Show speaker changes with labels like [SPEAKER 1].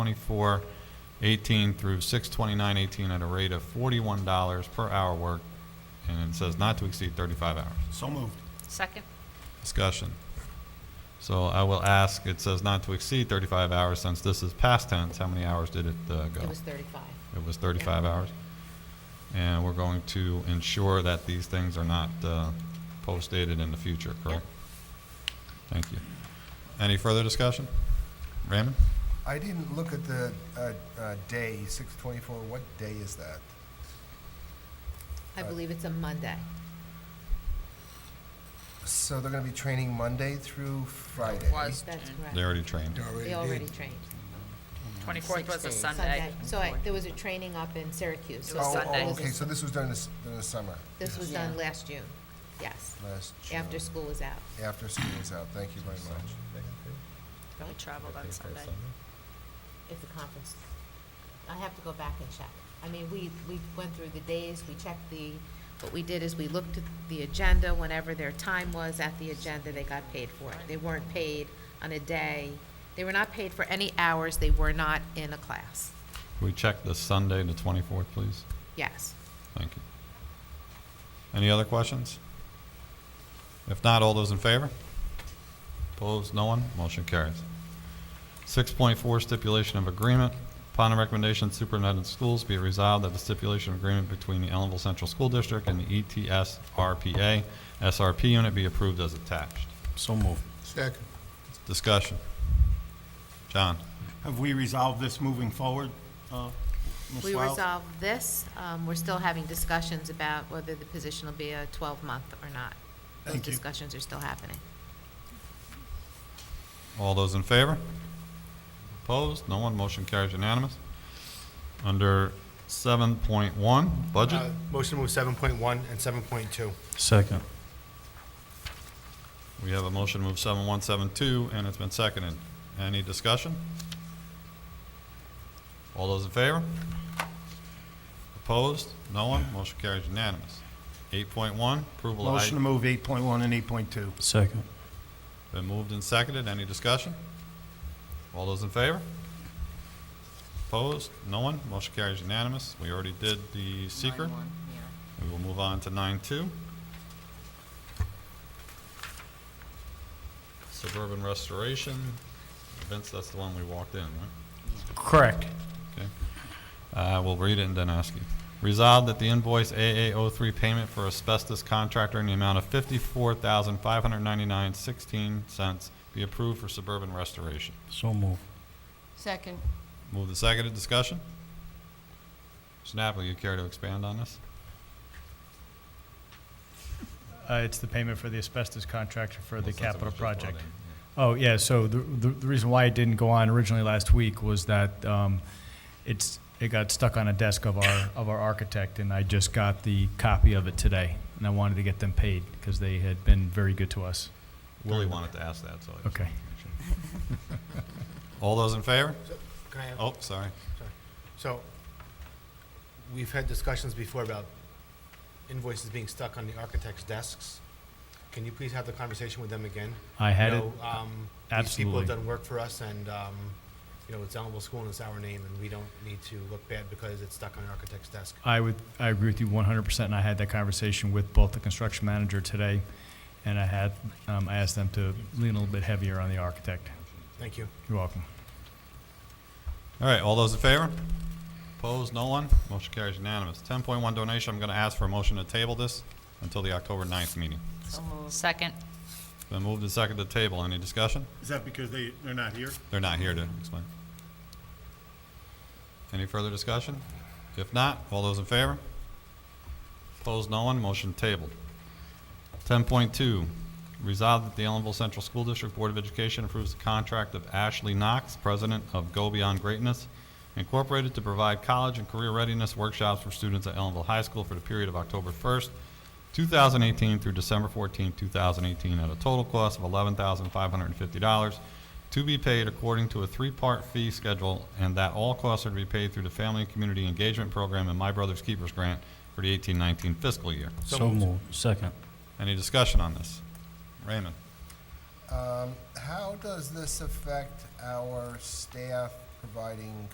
[SPEAKER 1] twenty-four eighteen through six twenty-nine eighteen at a rate of forty-one dollars per hour work, and it says not to exceed thirty-five hours.
[SPEAKER 2] So moved.
[SPEAKER 3] Second?
[SPEAKER 1] Discussion. So I will ask, it says not to exceed thirty-five hours, since this is past tense, how many hours did it uh, go?
[SPEAKER 3] It was 35.
[SPEAKER 1] It was 35 hours. And we're going to ensure that these things are not uh, postdated in the future, correct? Thank you. Any further discussion? Raymond?
[SPEAKER 4] I didn't look at the uh, uh, day, 624. What day is that?
[SPEAKER 3] I believe it's a Monday.
[SPEAKER 4] So they're going to be training Monday through Friday.
[SPEAKER 5] was
[SPEAKER 3] That's
[SPEAKER 1] They
[SPEAKER 3] correct.
[SPEAKER 1] already trained.
[SPEAKER 3] They already trained.
[SPEAKER 5] 24th was a
[SPEAKER 6] Six days.
[SPEAKER 5] Sunday.
[SPEAKER 3] So I, there was a training up in Syracuse.
[SPEAKER 5] It
[SPEAKER 4] Oh,
[SPEAKER 5] was
[SPEAKER 4] oh,
[SPEAKER 5] Sunday.
[SPEAKER 4] okay, so this was during the, s- during the summer,
[SPEAKER 3] This was
[SPEAKER 6] Yeah.
[SPEAKER 3] done last June, yes,
[SPEAKER 4] last June.
[SPEAKER 3] after school was out.
[SPEAKER 4] After school was out. Thank you very much.
[SPEAKER 5] We traveled on Sunday.
[SPEAKER 3] It's a conference. I have to go back and check. I mean, we, we went through the days, we checked the, what we did is we looked at the agenda, whenever their time was at the agenda, they got paid for it. They weren't paid on a day, they were not paid for any hours, they were not in a class,
[SPEAKER 1] Can we check the Sunday, the 24th, please?
[SPEAKER 3] yes.
[SPEAKER 1] Thank you. Any other questions? If not, all those in favor? Opposed, no one? Motion carries. 6.4 Stipulation of Agreement. Upon the recommendation of Superintendent of Schools, be it resolved that the stipulation of agreement between the Ellenville Central School District and the E ETS RPA SRP unit be approved as attached.
[SPEAKER 2] So moved.
[SPEAKER 4] Second.
[SPEAKER 1] Discussion. John?
[SPEAKER 2] Have we resolved this moving forward, uh, Ms.
[SPEAKER 3] We
[SPEAKER 2] Wild?
[SPEAKER 3] resolved this, um, we're still having discussions about whether the position will be a twelve-month or not. Those
[SPEAKER 2] Thank you.
[SPEAKER 3] discussions are still happening.
[SPEAKER 1] All those in favor? Opposed? No one. Motion carries unanimous. Under 7.1, budget.
[SPEAKER 7] Uh, Motion to move 7.1 and 7.2.
[SPEAKER 2] Second.
[SPEAKER 1] We have a motion to move 7172, and it's been seconded. Any discussion? All those in favor? Opposed? No one? Motion carries unanimous. 8.1, approval of...
[SPEAKER 2] Motion to
[SPEAKER 1] item
[SPEAKER 2] move 8.1 and 8.2.
[SPEAKER 8] Second.
[SPEAKER 1] Been moved and seconded. Any discussion? All those in favor? Opposed? No one? Motion carries unanimous. We already did the seeker.
[SPEAKER 6] Nine one, yeah.
[SPEAKER 1] We will move on to 9.2. Suburban restoration. Vince, that's the one we walked in, right?
[SPEAKER 8] Correct.
[SPEAKER 1] Okay. Uh, We'll read it and then ask you. Resolved that the invoice AA03 payment for asbestos contractor in the amount of $54,599.16 be approved for suburban restoration.
[SPEAKER 8] So move.
[SPEAKER 6] Second.
[SPEAKER 1] Move the seconded discussion. Mr. Napoli, you care to expand on this?
[SPEAKER 9] Uh, It's the payment for the asbestos contractor for
[SPEAKER 1] Well,
[SPEAKER 9] the
[SPEAKER 1] since it was
[SPEAKER 9] capital
[SPEAKER 1] just brought
[SPEAKER 9] project.
[SPEAKER 1] in, yeah.
[SPEAKER 9] Oh, yeah, so the, the the reason why it didn't go on originally last week was that um, it's, it got stuck on a desk of our, of our architect, and I just got the copy of it today, and I wanted to get them paid, because they had been very good to us.
[SPEAKER 1] Willie wanted to ask that, so. I just
[SPEAKER 9] Okay.
[SPEAKER 1] wanted to make sure. All those in favor?
[SPEAKER 7] Can I,
[SPEAKER 1] Oh, sorry.
[SPEAKER 7] so, we've had discussions before about invoices being stuck on the architect's desks. Can you please have the conversation with them again?
[SPEAKER 9] I had it,
[SPEAKER 7] No, um, These people
[SPEAKER 9] absolutely.
[SPEAKER 7] have done work for us, and, um, you know, it's Ellenville School, and it's our name, and we don't need to look bad because it's stuck on the architect's desk.
[SPEAKER 9] I would, I agree with you one hundred percent, and I had that conversation with both the construction manager today, and I had, um, I asked them to lean a little bit heavier on the architect.
[SPEAKER 7] Thank you.
[SPEAKER 9] You're welcome.
[SPEAKER 1] All right, all those in favor? Opposed, no one? Motion carries unanimous. Ten point one donation, I'm gonna ask for a motion to table this until the October 9th meeting.
[SPEAKER 6] So moved.
[SPEAKER 5] Second.
[SPEAKER 1] It's Been moved and seconded to table. Any discussion?
[SPEAKER 2] Is that because they, they're not here?
[SPEAKER 1] They're not here to explain. Any further discussion? If not, all those in favor? Opposed, no one, motion tabled. Ten point two, resolved that the Ellenville Central School District Board of Education approves the contract of Ashley Knox, President of Go Beyond Greatness Incorporated, to provide college and career readiness workshops for students at Ellenville High School for the period of October first, two thousand eighteen through December fourteenth, two thousand eighteen, at a total cost of eleven thousand five hundred and fifty dollars, to be paid according to a three-part fee schedule, and that all costs are to be paid through the Family and Community Engagement Program and My Brother's Keepers Grant for the 18-19 fiscal year.
[SPEAKER 8] So move. Second.
[SPEAKER 1] Any discussion on this? Raymond?
[SPEAKER 4] Um, how does this affect our staff providing